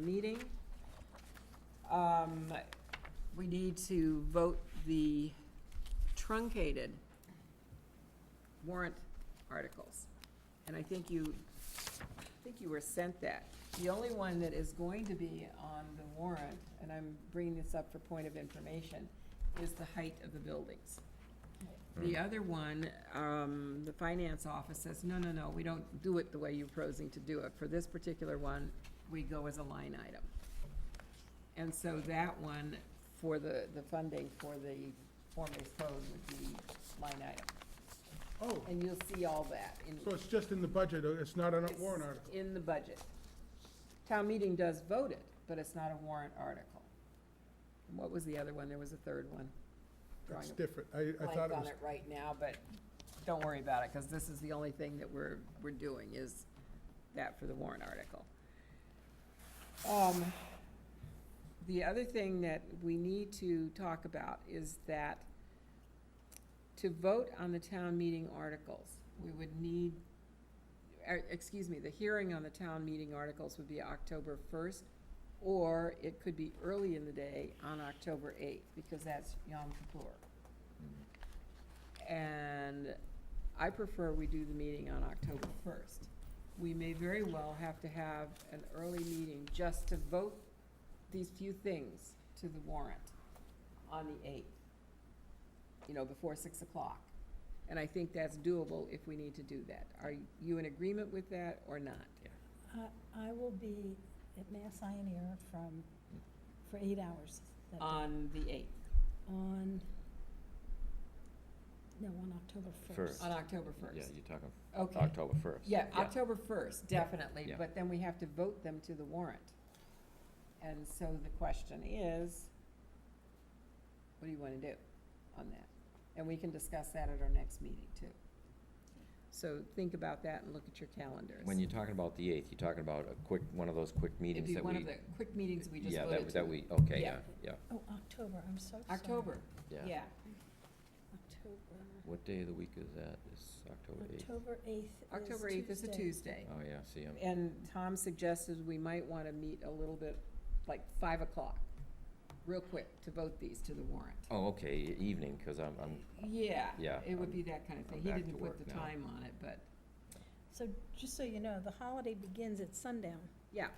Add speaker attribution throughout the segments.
Speaker 1: meeting. Um, We need to vote the truncated warrant articles. And I think you, I think you were sent that. The only one that is going to be on the warrant, and I'm bringing this up for point of information, is the height of the buildings. The other one, um, the finance office says, no, no, no, we don't do it the way you're proposing to do it. For this particular one, we go as a line item. And so that one for the, the funding for the form-based code would be line item.
Speaker 2: Oh,
Speaker 1: And you'll see all that in.
Speaker 2: so it's just in the budget, uh, it's not on a warrant
Speaker 1: It's
Speaker 2: article?
Speaker 1: In the budget. Town meeting does vote it, but it's not a warrant article. And What was the other one? There was a third one.
Speaker 2: That's
Speaker 1: Drawing a
Speaker 2: different. I, I
Speaker 1: blank
Speaker 2: thought it
Speaker 1: on
Speaker 2: was,
Speaker 1: it right now, but don't worry about it, because this is the only thing that we're, we're doing is that for the warrant article. Um, The other thing that we need to talk about is that to vote on the town meeting articles, we would need, er, excuse me, the hearing on the town meeting articles would be October first, or it could be early in the day on October eighth, because that's Yom Kippur. And I prefer we do the meeting on October first. We may very well have to have an early meeting just to vote these few things to the warrant on the eighth, you know, before six o'clock. And I think that's doable if we need to do that. Are you in agreement with that or not?
Speaker 3: I- I will be at Mass Ioneer from, for eight hours that day.
Speaker 1: On the eighth,
Speaker 3: On, no, on October
Speaker 4: First.
Speaker 3: first.
Speaker 1: on October
Speaker 4: Yeah,
Speaker 1: first.
Speaker 4: you're talking
Speaker 1: Okay.
Speaker 4: October first.
Speaker 1: Yeah, October first, definitely,
Speaker 4: Yeah.
Speaker 1: but then we have to vote them to the warrant. And so the question is, what do you wanna do on that? And we can discuss that at our next meeting too. So think about that and look at your calendars.
Speaker 4: When you're talking about the eighth, you're talking about a quick, one of those quick
Speaker 1: It'd
Speaker 4: meetings
Speaker 1: be
Speaker 4: that we.
Speaker 1: one of the quick meetings we just
Speaker 4: Yeah,
Speaker 1: voted
Speaker 4: that,
Speaker 1: to.
Speaker 4: that we, okay, yeah,
Speaker 1: Yeah.
Speaker 4: yeah,
Speaker 3: Oh, October, I'm so sorry.
Speaker 1: October, yeah.
Speaker 3: October,
Speaker 4: What day of the week is that? It's October eighth?
Speaker 3: October eighth is
Speaker 1: October eighth is a Tuesday.
Speaker 4: Oh, yeah, see, I'm,
Speaker 1: And Tom suggested we might wanna meet a little bit, like five o'clock, real quick, to vote these to the warrant.
Speaker 4: oh, okay, e- evening, because I'm, I'm,
Speaker 1: Yeah.
Speaker 4: Yeah,
Speaker 1: It would
Speaker 4: I'm-
Speaker 1: be that kind of thing.
Speaker 4: I'm
Speaker 1: He
Speaker 4: back
Speaker 1: didn't
Speaker 4: to
Speaker 1: put
Speaker 4: work
Speaker 1: the
Speaker 4: now.
Speaker 1: time on it, but,
Speaker 3: So just so you know, the holiday begins at sundown
Speaker 1: yeah,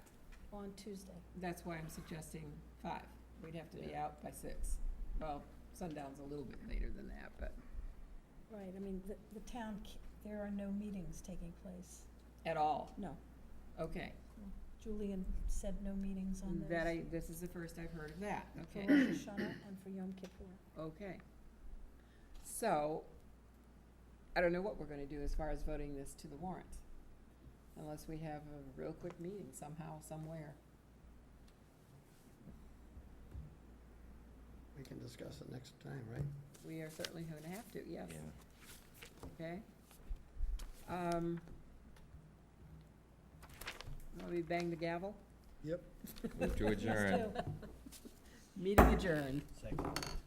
Speaker 3: on Tuesday.
Speaker 1: that's why I'm suggesting five. We'd have to be
Speaker 4: Yeah.
Speaker 1: out by six. Well, sundown's a little bit later than that, but
Speaker 3: Right, I mean, the, the town, ca- there are no meetings taking place.
Speaker 1: at all,
Speaker 3: No,
Speaker 1: okay.
Speaker 3: Julian said no meetings on those.
Speaker 1: That I, this is the first I've heard of that,
Speaker 3: For
Speaker 1: okay,
Speaker 3: Rosh Hashanah and for Yom Kippur.
Speaker 1: okay. So, I don't know what we're gonna do as far as voting this to the warrant. Unless we have a real quick meeting somehow, somewhere.
Speaker 5: We can discuss it next time, right?
Speaker 1: We are certainly gonna have to, yes.
Speaker 4: yeah.
Speaker 1: Okay. Um, Want me to bang the gavel?
Speaker 4: Move to
Speaker 3: Please
Speaker 4: adjourn.
Speaker 3: do.
Speaker 1: Meeting adjourned.
Speaker 5: Second.